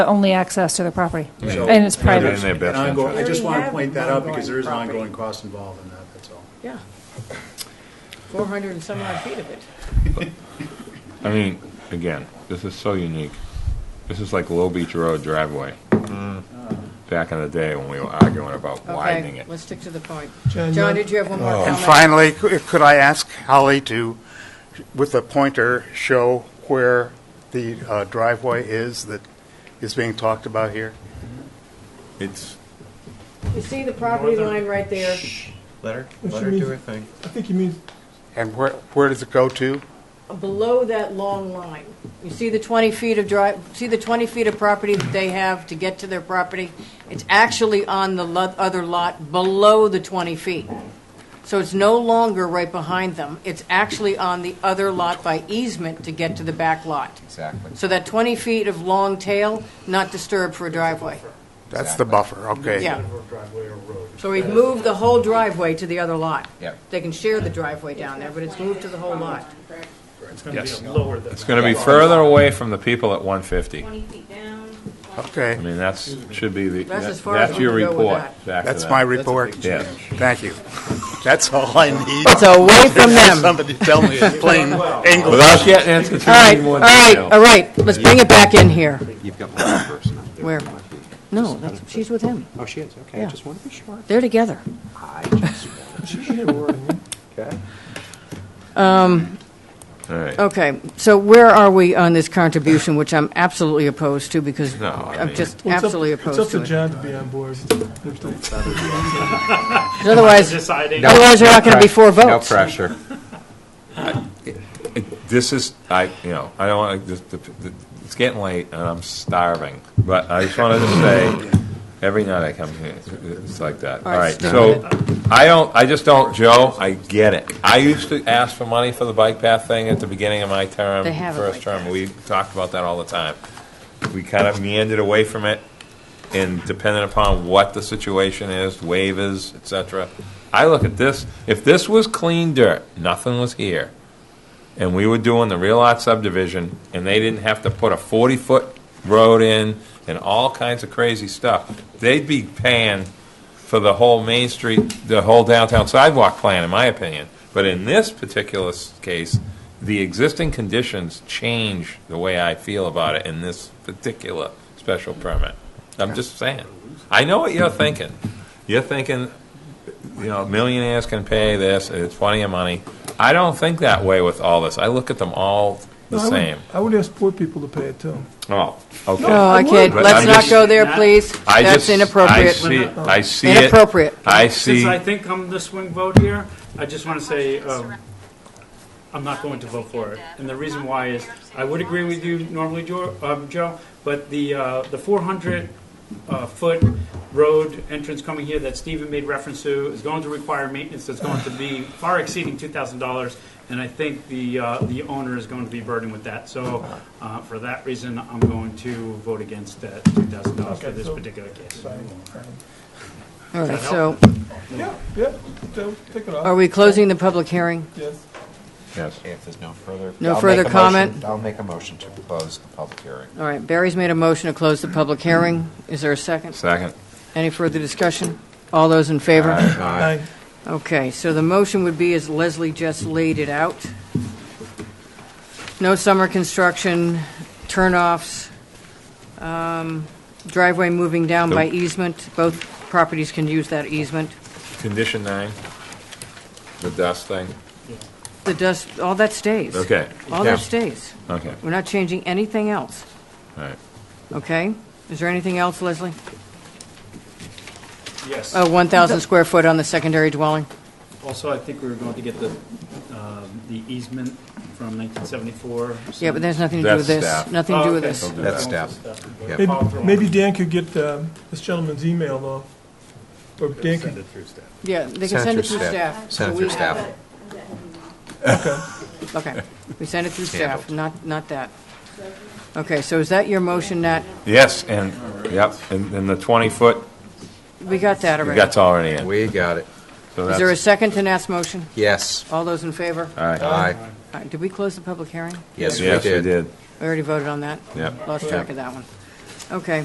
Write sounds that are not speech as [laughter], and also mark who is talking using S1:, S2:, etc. S1: the only access to the property.
S2: So-
S1: And it's
S3: They're
S1: private.
S3: doing their best
S2: And ongoing- I
S3: interest.
S2: just
S4: We
S2: want to
S4: have
S2: point that out because there is an
S4: ongoing property.
S2: ongoing cost involved in that, that's all.
S4: Yeah. Four hundred and some odd
S3: [sighs]
S4: feet of it.
S3: I mean, again, this is so unique. This is like Low Beach Road driveway. Back in the day when we were arguing about widening
S4: Mm. Okay,
S3: it. Oh.
S4: let's stick to the point. John, did you have one more
S5: And
S4: comment?
S5: finally, c- could I ask Holly to, with a pointer, show where the uh, driveway is that is being talked about here?
S3: It's,
S4: You see the property line right there?
S6: Let her,
S7: What
S6: let
S7: she
S6: her do
S7: means-
S6: her thing.
S7: I think you mean,
S5: And where, where does it go to?
S4: below that long line. You see the 20 feet of drive, see the 20 feet of property that they have to get to their property? It's actually on the lo- other lot below the 20 feet. So it's no longer right behind them. It's actually on the other lot by easement to get to the back lot.
S6: Exactly.
S4: So that 20 feet of long tail, not disturbed for a driveway.
S5: That's the buffer, okay.
S4: Yeah.
S2: Driveway or road.
S4: So we've moved the whole driveway to the other lot.
S6: Yep.
S4: They can share the driveway down there, but it's moved to the whole lot.
S2: It's going to be lower than.
S3: it's going to be further away from the people at 150.
S8: Twenty feet down.
S3: I
S5: Okay,
S3: mean, that's, should be the,
S4: That's as
S3: that-
S4: far as
S3: that's
S4: we
S3: your
S4: can go with
S3: report.
S4: that.
S3: back to
S5: that's
S3: that.
S5: my report.
S3: Yes.
S5: Thank you. That's all I need.
S4: It's away from them.
S5: [laughs] Somebody tell me in plain English.
S3: Without getting into too
S4: All right,
S3: many
S4: all
S3: more
S4: right,
S3: detail.
S4: all right, let's bring it back in here.
S6: You've got one person. out there.
S4: Where? No, that's, she's with him.
S6: Oh, she is, okay, I
S4: Yeah.
S6: just want to be sure.
S4: They're together.
S6: I just want
S7: she should have a word in it.
S6: to. Okay.
S3: All right.
S4: Okay, so where are we on this contribution, which I'm absolutely opposed to because
S3: No, I
S4: I'm
S3: mean-
S4: just
S7: Well, it's up-
S4: absolutely opposed
S7: It's
S4: to
S7: up to
S4: it.
S7: John to be on board.
S4: Because Otherwise,
S2: Deciding.
S4: otherwise there aren't going to be four
S6: No
S4: votes.
S6: pressure.
S3: This is, I, you know, I don't want, to. it's getting late and I'm starving, but I just wanted to say, every night I come here, it's like that.
S4: All
S3: All
S4: right,
S3: right,
S4: stick
S3: so,
S4: with
S3: I don't, I just don't, Joe, I get it. I used to ask for money for the bike path thing at the beginning of my term.
S4: They have it
S3: First
S4: like
S3: term, we talked about that all the time. We kind of meandered away from it, and depending upon what the situation is, waivers, et cetera. I look at this, if this was clean dirt, nothing was here, and we were doing the real lot subdivision, and they didn't have to put a forty-foot road in and all kinds of crazy stuff, they'd be paying for the whole Main Street, the whole downtown sidewalk plan, in my opinion. But in this particular s- case, the existing conditions change the way I feel about it in this particular special permit. I'm just saying. I know what you're thinking. You're thinking, you know, millionaires can pay this, it's plenty of money. I don't think that way with all this. I look at them all the
S7: No, I would-
S3: same.
S7: I would ask poor people to pay it too.
S3: Oh, okay.
S4: No, I can't,
S3: But
S4: let's
S3: I'm
S4: not
S3: just-
S4: go there, please.
S3: I
S4: That's
S3: just- I
S4: inappropriate.
S3: see, I see it.
S4: Inappropriate.
S3: I see.
S9: Since I think I'm the swing vote here, I just want to say, um, I'm not going to vote for it. And the reason why is, I would agree with you normally, Jo- um, Joe, but the, uh, the 400 uh, foot road entrance coming here that Stephen made reference to is going to require maintenance that's going to be far exceeding $2,000. And I think the, uh, the owner is going to be burdened with that. So uh, for that reason, I'm going to vote against that $2,000 for this particular case.
S4: All right, so
S7: Yeah, yeah, so take it
S4: are
S7: off,
S4: we closing the public hearing?
S7: yes.
S3: Yes.
S6: If there's no further.
S4: No
S6: I'll make
S4: further
S6: a motion-
S4: comment?
S6: I'll make a motion to close the public hearing.
S4: All right, Barry's made a motion to close the public hearing. Is there a second?
S3: Second.
S4: Any further discussion? All those in favor?
S7: Aye.
S4: Okay, so the motion would be, as Leslie just laid it out, no summer construction, turnoffs, um, driveway moving down by
S3: Nope.
S4: easement, both properties can use that easement.
S3: Condition nine, the dust thing.
S4: The dust, all that stays.
S3: Okay,
S4: All
S3: Yeah.
S4: that stays.
S3: okay,
S4: We're not changing anything else,
S3: all right.
S4: okay? Is there anything else, Leslie?
S9: Yes.
S4: Oh, 1,000 square foot on the secondary dwelling?
S9: Also, I think we were going to get the, um, the easement from Oh, 1974.
S4: Yeah, but that has nothing to do with
S3: That's
S4: this.
S3: staff.
S4: Nothing to do with this.
S6: That's staff.
S7: Maybe- Maybe Dan could get um, this gentleman's email off, or Dan can
S4: Yeah, they can
S6: Send it
S4: send it
S6: through
S4: through
S6: staff. Send it
S4: staff. so
S6: through
S4: we
S6: staff.
S4: have it. Okay, we send it through staff, not, not that. Okay, so is that your motion, Nat?
S3: Yes, and, yep, and, and the twenty foot,
S4: We got that already.
S3: that's already in.
S6: We got it.
S3: So
S4: Is there a
S3: that's,
S4: second to Nat's motion?
S6: Yes.
S4: All those in favor?
S3: all right.
S6: Aye.
S4: All right, Did we close the public hearing?
S6: Yes, we
S3: Yes, we
S6: did.
S3: did,
S4: We already voted on that?
S3: yep.
S4: Lost track of that one. Okay.